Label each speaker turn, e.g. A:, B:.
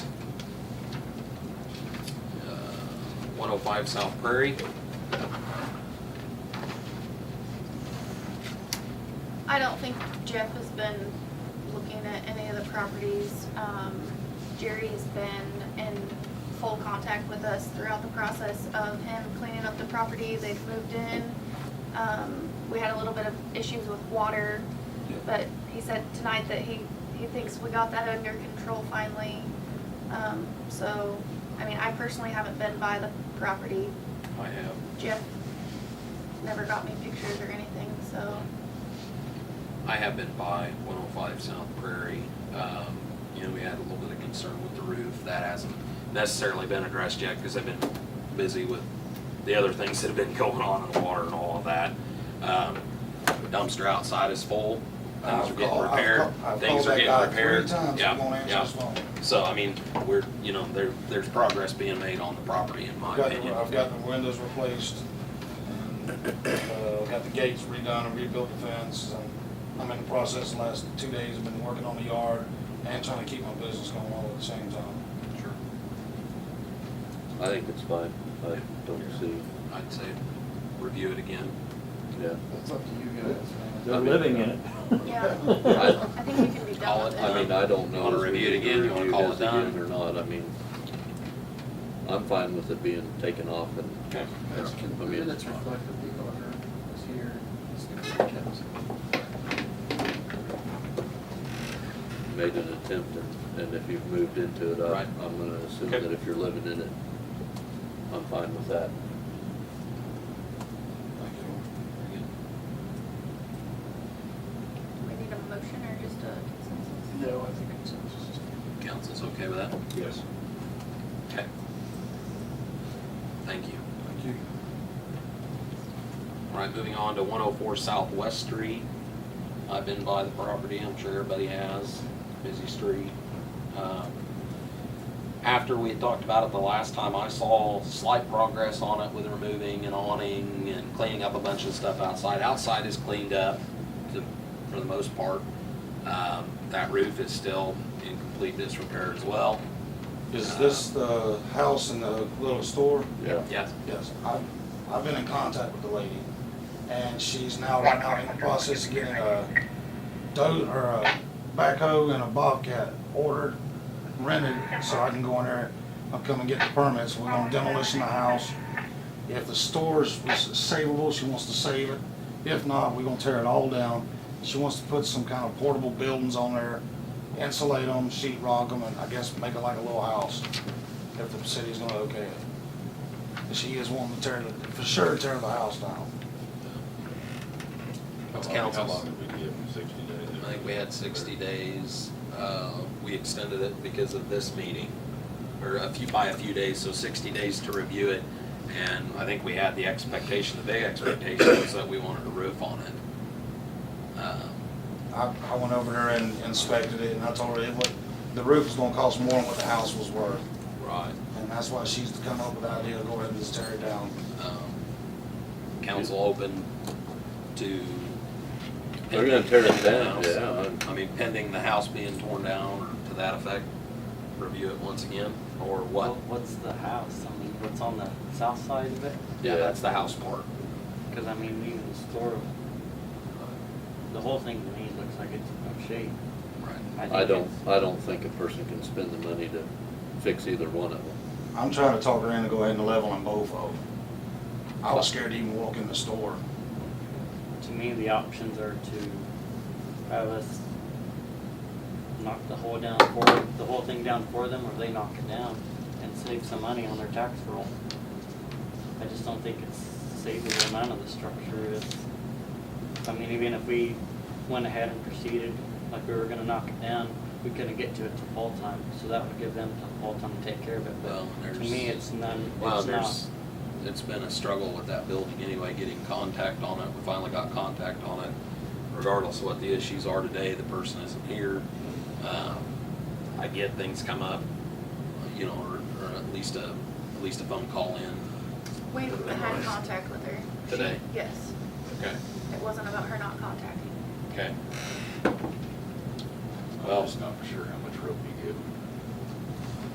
A: Uh, 105 South Prairie.
B: I don't think Jeff has been looking at any of the properties. Um, Jerry has been in full contact with us throughout the process of him cleaning up the property. They've moved in. Um, we had a little bit of issues with water, but he said tonight that he, he thinks we got that under control finally. Um, so, I mean, I personally haven't been by the property.
A: I have.
B: Jeff never got me pictures or anything, so.
A: I have been by 105 South Prairie. Um, You know, we had a little bit of concern with the roof. That hasn't necessarily been addressed yet because I've been busy with the other things that have been going on in the water and all of that. Um, Dumpster outside is full. Things are
C: I've
A: getting
C: called- I've
A: repaired.
C: called- I've
A: Things
C: called
A: are
C: that
A: getting
C: guy
A: repaired.
C: Three times, he
A: Yeah,
C: won't answer
A: yeah.
C: his phone.
A: So, I mean, we're, you know, there, there's progress being made on the property in my
C: I've got,
A: opinion.
C: the- I've got the windows replaced, and, uh, got the gates redone and rebuilt the fence. and I'm in the process, the last two days, I've been working on the yard and trying to keep my business going all at the same time.
A: Sure.
D: I think it's fine. I don't see,
A: I'd say review it again.
D: yeah.
E: That's up to you guys,
F: They're living in it.
B: Yeah.
D: I-
B: I think we can be done
A: Call
B: with
A: it.
B: it.
D: I mean, I don't know.
A: Wanna
D: if we
A: review it
D: need to
A: again? You wanna
D: review
A: call it
D: this again
A: done?
D: Or not, I mean, I'm fine with it being taken off and,
A: Okay.
E: That's
D: I mean-
E: concluded, it's reflected, the auditor is here, it's gonna be kept.
D: made an attempt, and- and if you've moved into it, I-
A: Right.
D: I'm gonna assume
A: Okay.
D: that if you're living in it, I'm fine with that.
B: We need a motion or just a consensus?
E: No, I think consensus is.
A: Council's okay with that?
C: Yes.
A: Okay. Thank you.
E: Thank you.
A: All right, moving on to one oh four Southwest Street. I've been by the property, I'm sure everybody has, busy street. Um, After we had talked about it the last time, I saw slight progress on it with removing an awning and cleaning up a bunch of stuff outside. Outside is cleaned up to, for the most part. Um, that roof is still in complete disrepair as well.
C: Is this the house in the little store?
D: Yeah.
A: Yes,
C: Yes, I've, I've been in contact with the lady, and she's now right now in the process of getting a do or a backhoe and a bobcat ordered, rented, so I can go in there, I'll come and get the permits, we're gonna demolition the house. If the store's savable, she wants to save it, if not, we're gonna tear it all down. She wants to put some kind of portable buildings on there, insulate them, sheet rock them, and I guess make it like a little house, if the city's gonna okay it. She is wanting to tear, the- for sure tear the house down.
A: that's
G: How long-
A: council's.
G: How long did we give them, sixty days?
A: I think we had sixty days. Uh, we extended it because of this meeting, or a few, by a few days, so sixty days to review it. And I think we had the expectation, the big expectation was that we wanted a roof on it. Um,
C: I, I went over there and inspected it, and I told her it would, the roof was gonna cost more than what the house was worth.
A: Right.
C: And that's why she's come up with the idea to go ahead and just tear it down.
A: um, Council open to.
D: They're gonna tear it
A: Pending
D: down,
A: the
D: yeah.
A: house. I mean, pending the house being torn down or to that effect, review it once again, or what?
H: What- What's the house? I mean, what's on the south side of it?
A: Yeah,
D: Yeah.
A: that's the house part.
H: Because I mean, even the store, the whole thing to me looks like it's in rough shape.
A: Right.
H: think
D: I don't,
H: it's-
D: I don't think a person can spend the money to fix either one of them.
C: I'm trying to talk her into go ahead and level them both of them. I was scared to even walk in the store.
H: To me, the options are to have us knock the whole down for, the whole thing down for them, or they knock it down and save some money on their tax roll. I just don't think it's savable amount of the structure is, I mean, even if we went ahead and proceeded, like we were gonna knock it down, we couldn't get to it till fall time, so that would give them till fall time to take care of it,
A: Well,
H: but
A: there's-
H: to me, it's none,
A: Well,
H: it's not.
A: there's, it's been a struggle with that building anyway, getting contact on it. We finally got contact on it. Regardless of what the issues are today, the person isn't here. Um, I get things come up, you know, or, or at least a, at least a phone call in
B: We had contact with her.
A: today.
B: Yes,
A: Okay.
B: it wasn't about her not contacting.
A: Okay.
G: Well, it's not for sure how much rope you give them.